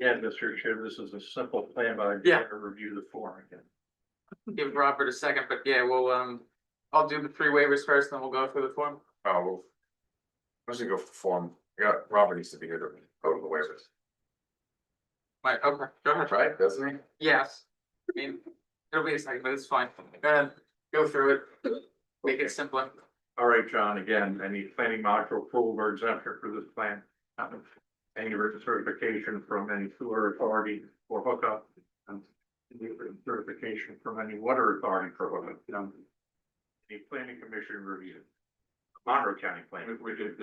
Yeah, Mr. Chair, this is a simple plan, but I Yeah. gotta review the form again. Give Robert a second, but yeah, we'll, um, I'll do the three waivers first, then we'll go through the form. Oh, well. I'm just gonna go for form, yeah, Robert needs to be here to go to the waivers, Right, okay, go ahead. right, doesn't he? Yes, I mean, it'll be a second, but it's fine. Go ahead, go through it. Make it simpler. All right, John, again, any planning module approval or exemption for this plan? Um, Any written certification from any sewer authority for hookup? and any written Certification from any water authority for hookup? um, Any planning commission review? Monroe County Planning. We did,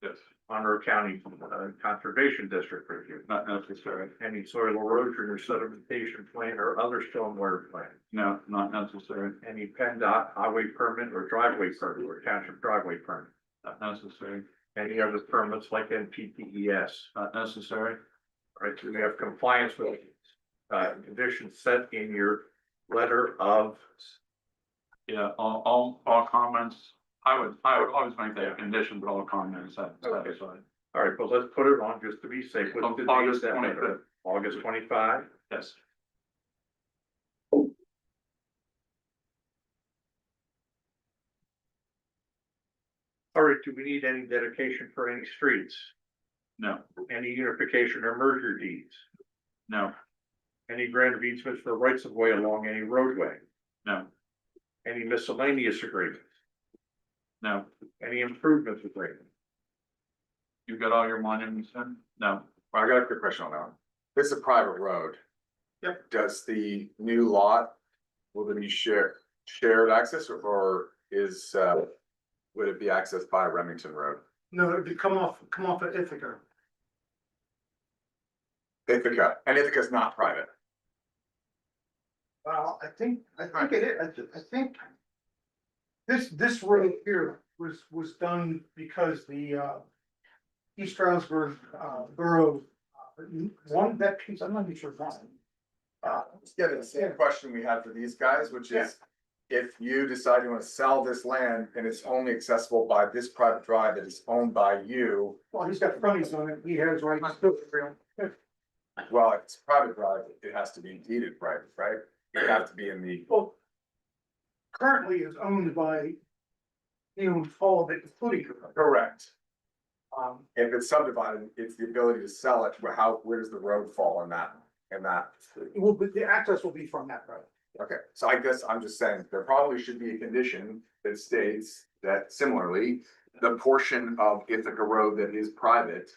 yes. Monroe County uh, Conservation District review. Not necessary. Any soil erosion or sedimentation plan or other stormwater plan? No, not necessary. Any PennDOT highway permit or driveway permit or township driveway permit? Not necessary. Any other permits like NPDES? Not necessary. All E right, so we have compliance with uh conditions set in your letter of. Yeah, all, all, all comments, I would, I would always make that a condition, but all comments sat- Okay. satisfied. All right, well, let's put it on just to be safe. What's On the date of August that letter? 25th. August twenty-five? Yes, All right, do we need any dedication for any streets? no, Any unification or merger deeds? no, Any grant of easements for rights of way along any roadway? no, Any miscellaneous agreements? no. Any improvements agreement? You got all your monuments in? No, Well, I got a quick question on that. one. This is a private road. Yep. Does the new lot, will there be share, shared access or- or is, uh, would it be accessed by Remington Road? No, it'd be come off, come off at Ithaca. Ithaca, and Ithaca's not private. Well, I think, I think it is, I thi- I think. This, this road here was, was done because the, uh. East Stroudsburg, uh, Borough, uh, one, that piece, I'm not even sure why. Uh, Yeah, the same question we had for these guys, which is if you decide you want to sell this land and it's only accessible by this private drive that is owned by you, well, he's got fronties on it, he has rights to it. well, if it's private drive, it has to be deeded private, right? It would have to be in the, Well, currently is owned by. He owns all of it, including, correct. um, If it's subdivided, it's the ability to sell it, where how, where does the road fall in that, in that? it will, be- the access will be from that road. Okay, so I guess I'm just saying, there probably should be a condition that states that similarly, the portion of Ithaca Road that is private.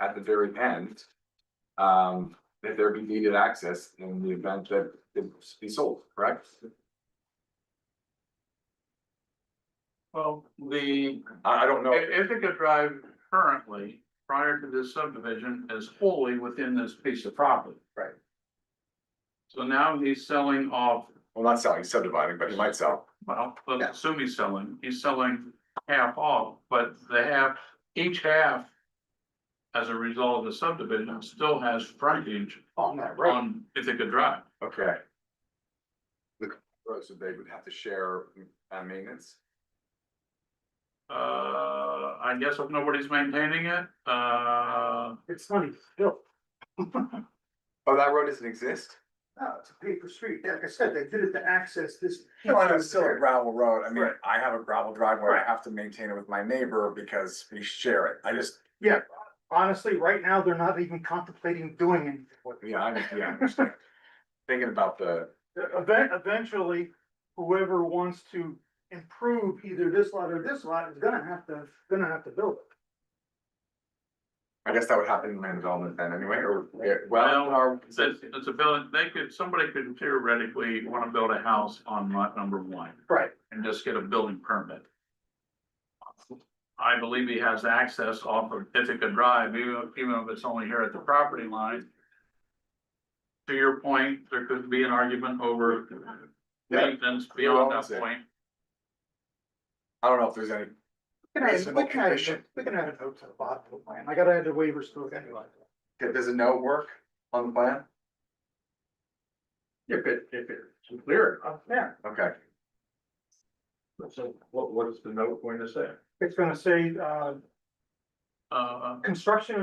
At the very end, um, that there be needed access in the event that it be sold, correct? well, the, I, I don't know, I- Ithaca Drive currently, prior to this subdivision, is wholly within this piece of property. Right. So now he's selling off, well, not selling, subdividing, but you might sell. well, let's Yeah. assume he's selling, he's selling half off, but the half, each half as a result of the subdivision still has frontage On that road. on Ithaca Drive. Okay. The road, so they would have to share, uh, maintenance? Uh, I guess if nobody's maintaining it, uh, It's funny, Bill. Oh, that road doesn't exist? No, it's a paper street. Like I said, they did it to access this. No, I know, it's still a gravel road. I mean, Right. I have a gravel driveway. I have to maintain it with my neighbor because we share it. I just, Honestly, right now, they're not even contemplating doing anything with it. yeah, I, yeah, I understand. Thinking about the, Event, eventually, whoever wants to improve either this lot or this lot is gonna have to, gonna have to build it. I guess that would happen in land development then anyway, or, yeah, well, Well, our, it's, it's a village, they could, somebody could theoretically want to build a house on lot number one Right. and just get a building permit. I believe he has access off of Ithaca Drive, even, even if it's only here at the property line. To your point, there could be an argument over Yeah. maintenance beyond owns that it? point. I don't know if there's any, We can add- Reasonable we can add condition. a- we can add a note to the bottom of the plan. I gotta add the waivers to it anyway. does a note work on the plan? If it, if it's clear enough, yeah. Okay, So what, what is the note going to say? It's gonna say, uh, Uh, construction